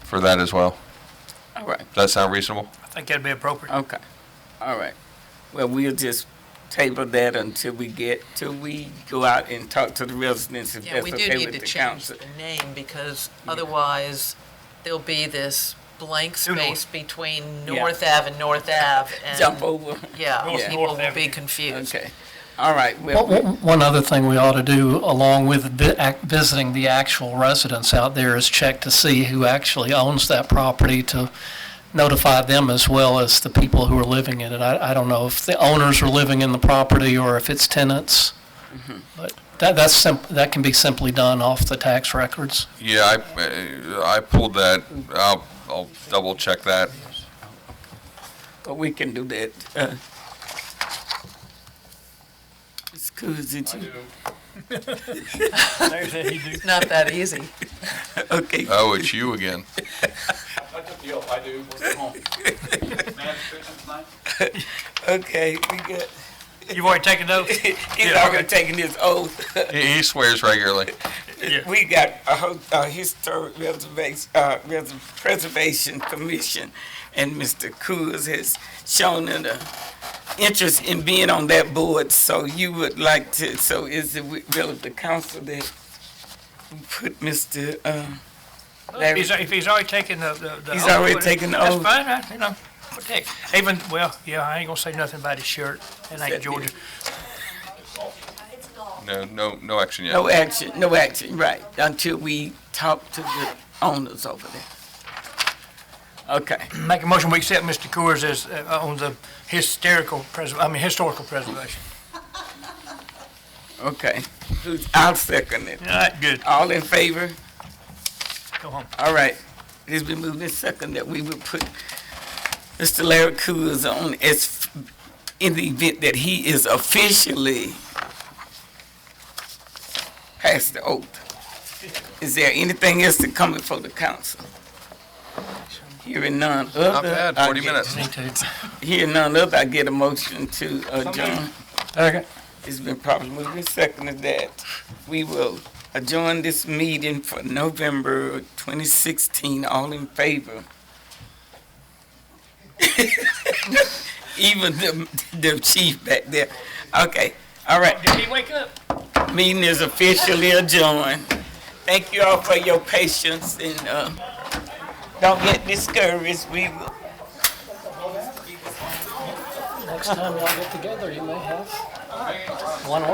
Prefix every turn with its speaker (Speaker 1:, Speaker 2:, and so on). Speaker 1: for that as well.
Speaker 2: All right,
Speaker 1: Does that sound reasonable?
Speaker 3: I think that'd be appropriate.
Speaker 2: okay, all right. Well, we'll just table that until we get, till we go out and talk to the residents if
Speaker 4: Yeah,
Speaker 2: that's
Speaker 4: we do
Speaker 2: okay
Speaker 4: need
Speaker 2: with
Speaker 4: to
Speaker 2: the
Speaker 4: change
Speaker 2: council.
Speaker 4: the name because otherwise there'll be this blank
Speaker 3: New North.
Speaker 4: space between
Speaker 2: Yeah.
Speaker 4: North Ave and North Ave. and-
Speaker 2: Jump over,
Speaker 4: Yeah,
Speaker 3: North
Speaker 4: people
Speaker 3: North
Speaker 4: will
Speaker 3: Avenue.
Speaker 4: be confused.
Speaker 2: okay. All right,
Speaker 5: Well,
Speaker 2: well,
Speaker 5: One one other thing we ought to do, along with vi- ac- visiting the actual residents out there, is check to see who actually owns that property to notify them as well as the people who are living in it. I, I don't know if the owners are living in the property or if it's tenants. But that, that's simp, that can be simply done off the tax records.
Speaker 1: Yeah, I, uh, I pulled that. I'll, I'll double check that.
Speaker 2: but we can do that. uh. Ms. Coons, did you,
Speaker 3: There's that he do.
Speaker 4: It's Not that easy.
Speaker 2: okay,
Speaker 1: Oh, it's you again.
Speaker 6: That's up to you if I do. What's the home? May I have a picture tonight?
Speaker 2: okay, we good.
Speaker 3: You've already taken those?
Speaker 2: He's already taking his oath.
Speaker 1: He he swears regularly.
Speaker 3: Yeah.
Speaker 2: We got a, ho- a historic reservation, uh, res- preservation commission, and Mr. Coors has shown an uh, interest in being on that board, so you would like to, so is it wi- will of the council that we put Mr., uh,
Speaker 3: If
Speaker 2: Larry?
Speaker 3: he's, if he's already taken the, the- the.
Speaker 2: He's
Speaker 3: oath,
Speaker 2: already
Speaker 3: but
Speaker 2: taken the oath.
Speaker 3: That's fine, I, you know, what the heck. even, well, yeah, I ain't gonna say nothing about his shirt, it ain't Georgia.
Speaker 1: No, no, no action yet.
Speaker 2: No action, no action, right, until we talk to the owners over there. Okay,
Speaker 3: Make a motion, we accept Mr. Coors as, uh, on the hysterical pres, I mean, historical preservation.
Speaker 2: okay, I'll second it.
Speaker 3: All right, good,
Speaker 2: All in favor?
Speaker 3: go home.
Speaker 2: All right, it's been moved and second that we would put Mr. Larry Coors on as, in the event that he is officially past the oath. Is there anything else to come before the council? Hearing none other.
Speaker 1: Not bad,
Speaker 2: I
Speaker 1: 40
Speaker 2: get-
Speaker 1: minutes.
Speaker 5: Me too.
Speaker 2: Hearing none other, I get a motion to adjourn.
Speaker 5: Okay.
Speaker 2: It's been properly moved and seconded that we will adjourn this meeting for November 2016. All in favor? Even the, the chief back there. Okay, all right.
Speaker 3: Did he wake up?
Speaker 2: Meeting is officially adjourned. Thank you all for your patience and, uh, don't get discouraged. We will
Speaker 5: Next time y'all get together, you may have one